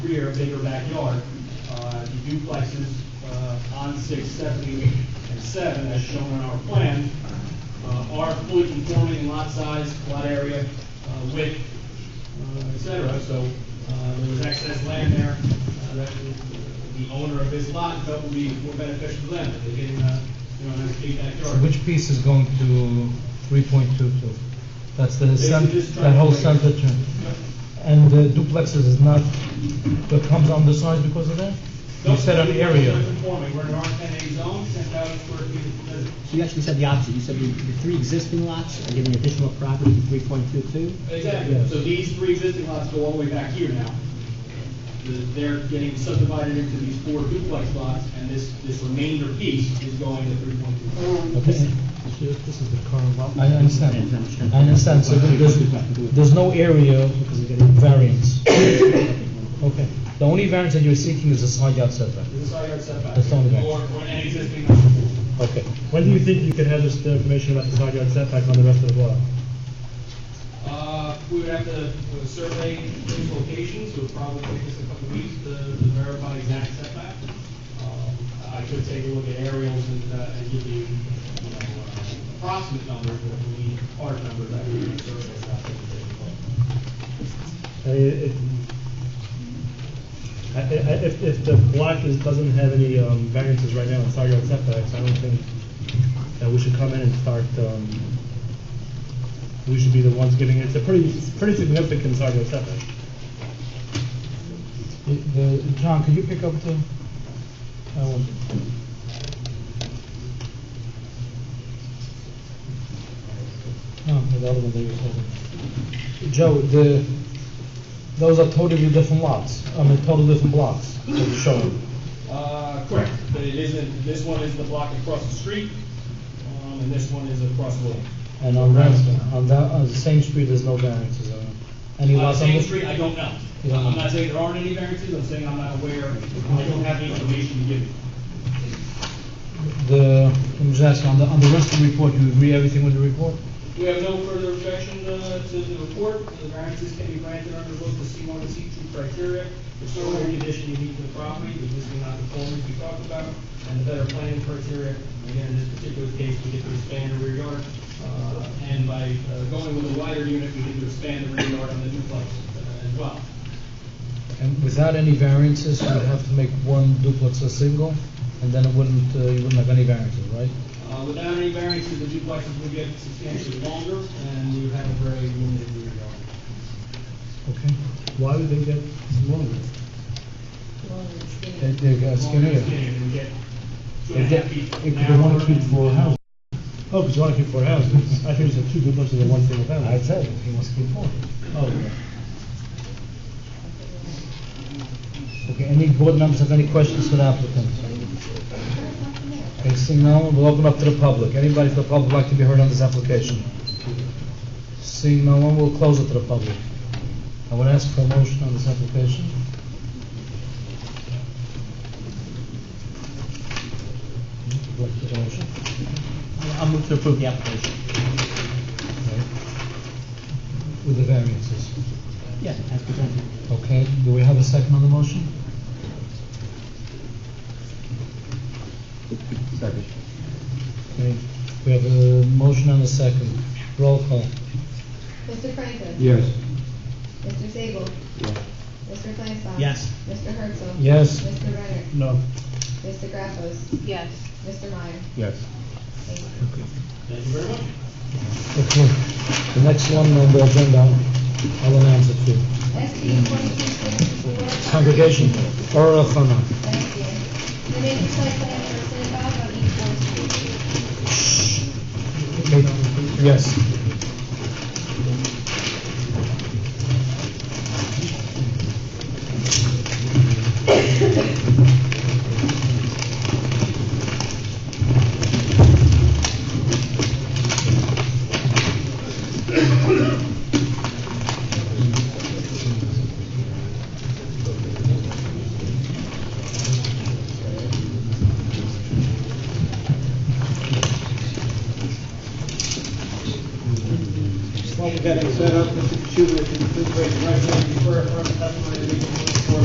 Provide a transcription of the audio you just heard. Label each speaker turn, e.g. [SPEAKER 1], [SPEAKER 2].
[SPEAKER 1] rear, bigger backyard. Uh, The duplexes uh, on six, seven, and seven, as shown on our plan, uh, are fully conforming in lot size, lot area, uh, width, uh, et cetera. So uh, there was excess land there uh, that the owner of this lot felt would be more beneficial to them. They didn't, uh, you know, have a big
[SPEAKER 2] So
[SPEAKER 1] backyard.
[SPEAKER 2] Which piece is going to three point two two? That's the
[SPEAKER 1] This is
[SPEAKER 2] center,
[SPEAKER 1] just
[SPEAKER 2] that whole
[SPEAKER 1] trying to-
[SPEAKER 2] center turn. And the duplexes is not, that comes on the side because of that? You said an area.
[SPEAKER 1] We're conforming. We're in an R ten A zone, ten thousand square feet of business.
[SPEAKER 3] You actually said the opposite, you said the, the three existing lots are giving additional property to three point two two?
[SPEAKER 1] Exactly, so these three existing lots go all the way back here now. The- They're getting subdivided into these four duplex lots, and this, this remainder piece is going to three point two.
[SPEAKER 2] Okay,
[SPEAKER 4] This is the current lot.
[SPEAKER 2] I understand, I understand, so there- there's, there's no area variance. Okay, the only variance that you're seeking is the side yard setback.
[SPEAKER 1] This is side yard setback.
[SPEAKER 2] That's not bad.
[SPEAKER 1] Or, or an existing number four.
[SPEAKER 2] Okay.
[SPEAKER 4] When do you think you can have this information about the side yard setback on the rest of the block?
[SPEAKER 1] Uh, we would have to uh, survey these locations, it would probably take us a couple of weeks to to verify exact setback. Um, I could take a look at aerials and, uh, and give you, you know, uh, approximate numbers, but if we need hard numbers, I would survey that.
[SPEAKER 4] I mean, it, I, I, I- if, if the block is, doesn't have any, um, variances right now in side yard setbacks, I don't think that we should come in and start, um, we should be the ones giving, it's a pretty, it's pretty significant side yard setback.
[SPEAKER 2] The- the- John, could you pick up the, I want, no, Oh, the other one that you holding. Joe, the, those are totally different lots, I mean, totally different blocks that you're showing.
[SPEAKER 1] Uh, correct, but it isn't, this one is the block across the street, um, and this one is across the lake.
[SPEAKER 2] And on that, on that, on the same street, there's no variances, uh, any
[SPEAKER 1] On the
[SPEAKER 2] lots on
[SPEAKER 1] same
[SPEAKER 2] the
[SPEAKER 1] street, I don't know.
[SPEAKER 2] You don't know.
[SPEAKER 1] I'm not saying there aren't any variances, I'm saying I'm not aware, I don't have the information to give you.
[SPEAKER 2] The, I'm just asking, on the, on the rest of the report, you agree everything with the report?
[SPEAKER 1] We have no further objection uh, to the report. The variances can be granted under both the C1 and C2 criteria. The solar condition unique to the property, the existing non-conformities we talked about, and the better planning criteria. Again, in this particular case, we get to expand the rear yard, uh, and by uh, going with a wider unit, we get to expand the rear yard on the duplex uh, as well.
[SPEAKER 2] And without any variances, you'd have to make one duplex a single, and then it wouldn't, uh, you wouldn't have any variances, right?
[SPEAKER 1] Uh, Without any variances, the duplexes would get substantially longer, and we would have a very limited rear yard.
[SPEAKER 2] Okay.
[SPEAKER 4] Why would they get longer?
[SPEAKER 2] They, they got
[SPEAKER 1] Longer
[SPEAKER 2] skinnier.
[SPEAKER 1] than standard, we get two and a half feet
[SPEAKER 4] If
[SPEAKER 1] an
[SPEAKER 4] they want
[SPEAKER 1] hour
[SPEAKER 4] to keep
[SPEAKER 1] and-
[SPEAKER 4] four houses. Oh, because you want to keep four houses. I think you said two duplexes and one single family.
[SPEAKER 2] I said, he wants to keep four.
[SPEAKER 4] Oh.
[SPEAKER 2] Okay, any board members have any questions for the applicant? Okay, seeing none, we'll open up to the public. Anybody from the public like to be heard on this application? Seeing no one, we'll close it to the public. I would ask for a motion on this application. Would you like to make a motion?
[SPEAKER 3] I'll move to approve the application.
[SPEAKER 2] Okay. With the variances.
[SPEAKER 3] Yeah, as presented.
[SPEAKER 2] Okay, do we have a second on the motion?
[SPEAKER 5] Second.
[SPEAKER 2] Okay, we have a motion and a second. Roll call.
[SPEAKER 6] Mr. Franklin?
[SPEAKER 5] Yes.
[SPEAKER 6] Mr. Sable?
[SPEAKER 5] Yes.
[SPEAKER 6] Mr. Flansbrough?
[SPEAKER 3] Yes.
[SPEAKER 6] Mr. Herzl?
[SPEAKER 2] Yes.
[SPEAKER 6] Mr. Renner?
[SPEAKER 4] No.
[SPEAKER 6] Mr. Graffos? Yes. Mr. Meyer?
[SPEAKER 5] Yes.
[SPEAKER 6] Thank you.
[SPEAKER 1] Thank you very much.
[SPEAKER 2] Okay, the next one on the agenda, I'll announce it to you.
[SPEAKER 6] SB twenty-two sixty-four.
[SPEAKER 2] Congregation, Ora Fana.
[SPEAKER 6] Thank you. The major site plan for Cinnabar on East Fourth Street.
[SPEAKER 2] Yes.
[SPEAKER 1] While we got it set up, Mr. Schuler, can you please raise your right hand before affirming testimony that you give